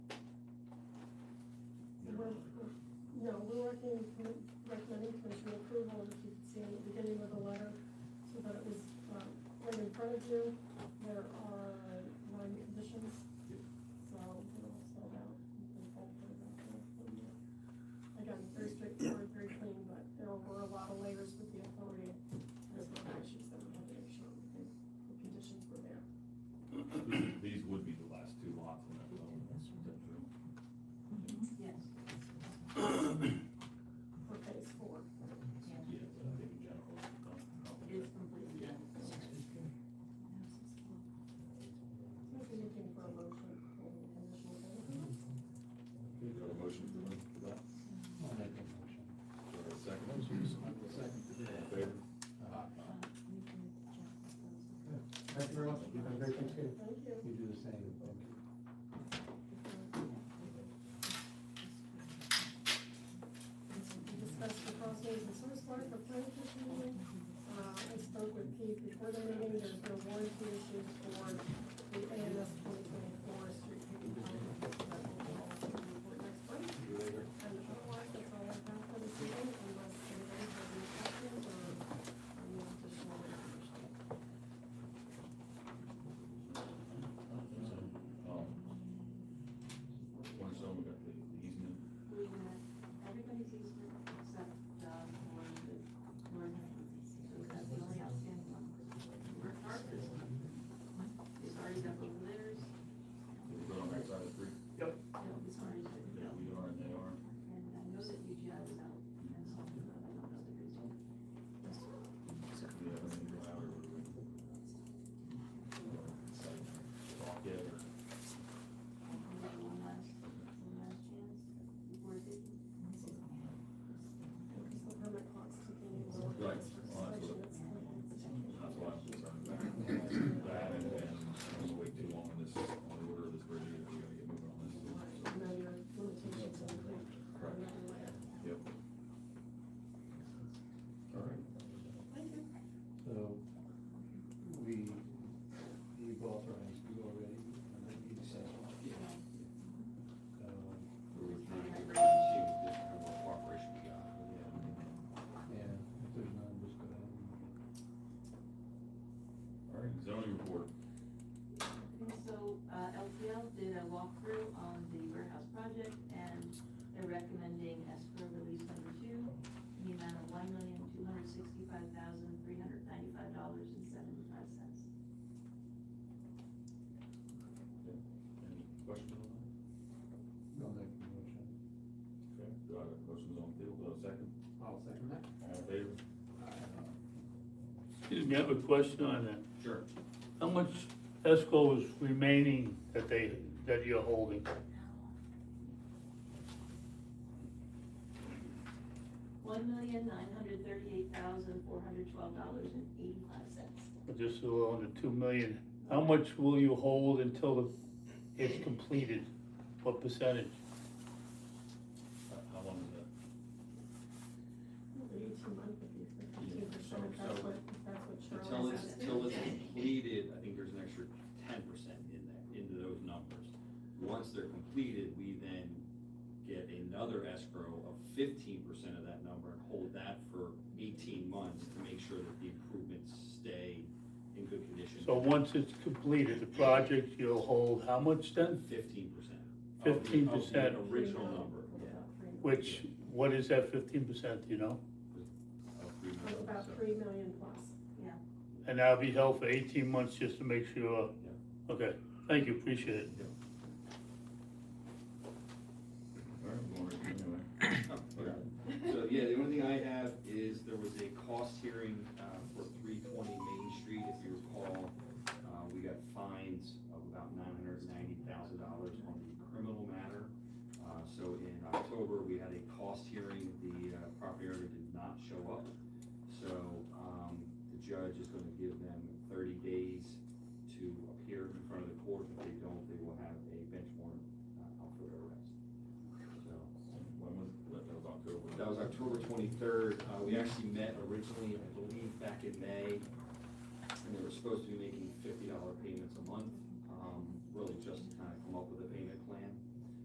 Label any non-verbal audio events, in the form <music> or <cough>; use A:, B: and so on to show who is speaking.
A: we're, we're- no, we're working, commi- recommending commission approval, as you can see in the beginning of the letter, so that it was, uh, right in front of you. There are nine conditions, so we'll sort out. and go over that with them. Again, very straightforward, very clean, but there were a lot of layers with the authority, there's a lot of issues that we had to make sure the the conditions were there.
B: <clears throat> These would be the last two lots in that zone.
C: Yes.
A: for phase four.
B: Yeah, uh, but I think in general.
C: It's completely
A: If
C: done.
A: you're looking for a motion, for the conditional approval,
B: We've got a motion for that, for that.
D: I'll make a motion.
B: Is there a second Uh, Second Favor?
D: Thank you very much, you've been very appreciative.
A: thank you.
D: You do the same.
A: We discussed the crossways and source water for planning commission meeting. Uh, I spoke with Pete before the meeting, there's no warranty issues for the AMS twenty twenty-four street paving plan. That will be all for the report next month. And otherwise, that's all I have for this meeting, unless anybody has any questions or um, any additional information.
B: Um, One zone, we got the the easement,
C: We had, everybody's easement except, uh, for the northern, so that's the only outstanding one. Mark Harper's one, it's already got both letters,
B: we're good on that side of the creek,
C: no, it's already written
B: that we are and they are.
C: And I know that UGI was out and something, but I don't know the reason.
B: Do you have any driver? Talk yet, or?
C: One last, one last chance, before it did.
A: Because the permit clock's ticking. and the
B: Right.
A: inspection that's coming.
B: That's why I'm concerned about it. that, and, and I'm gonna wait too long on this, on the order of this bridge, either. we gotta get moving on this. too, so.
A: And then your limitations on the creek.
B: Right. Yep. All right.
A: Thank you.
D: So we, you've authorized you already, and then you said. Um,
B: We were trying to get rid of the shoe, just kind of a cooperation we got.
D: Yeah, if there's none, just go ahead. and-
B: All right, zoning report.
C: And so, uh, LPL did a walkthrough on the warehouse project, and they're recommending escrow release number two, in the amount of one million, two hundred sixty-five thousand, three hundred ninety-five dollars and seventy-five cents.
B: Any questions on that?
D: I'll make a motion.
B: Okay, do I have questions on the table, do I have a second?
D: I'll second that.
B: All in favor?
E: Excuse me, I have a question on that.
B: Sure.
E: How much escrow is remaining that they, that you're holding?
C: One million, nine hundred thirty-eight thousand, four hundred twelve dollars and eighty-five cents.
E: Just a little under two million. How much will you hold until it's completed? What percentage?
B: How- How long is that?
A: Maybe two months if you, fifteen percent, if that's what, if that's what
F: Till
A: Charlie
F: it's,
A: said.
F: till it's completed, I think there's an extra ten percent in that, into those numbers. Once they're completed, we then get another escrow of fifteen percent of that number and hold that for eighteen months to make sure that the improvements stay in good condition.
E: So once it's completed, the project, you'll hold how much then?
F: Fifteen percent.
E: 15%.
F: Original number, yeah.
E: Which, what is that fifteen percent, you know?
F: of three
A: It's
F: million,
A: about
F: so-
A: three million plus.
E: And that'll be held for eighteen months just to make sure. Okay, thank you, appreciate it.
B: All right, we'll order it anyway.
F: Oh,
B: Okay.
F: So, yeah, the only thing I have is there was a cost hearing uh, for three twenty Main Street, if you recall. Uh, We got fines of about nine hundred ninety thousand dollars on the criminal matter. Uh, So in October, we had a cost hearing, the uh, property owner did not show up. So um, the judge is gonna give them thirty days to appear in front of the court. If they don't, they will have a bench warrant uh, out for their arrest. So
B: When was, that that was October.
F: that was October twenty-third, uh, we actually met originally, I believe, back in May. And they were supposed to be making fifty dollar payments a month, um, really just to kind of come up with a payment plan.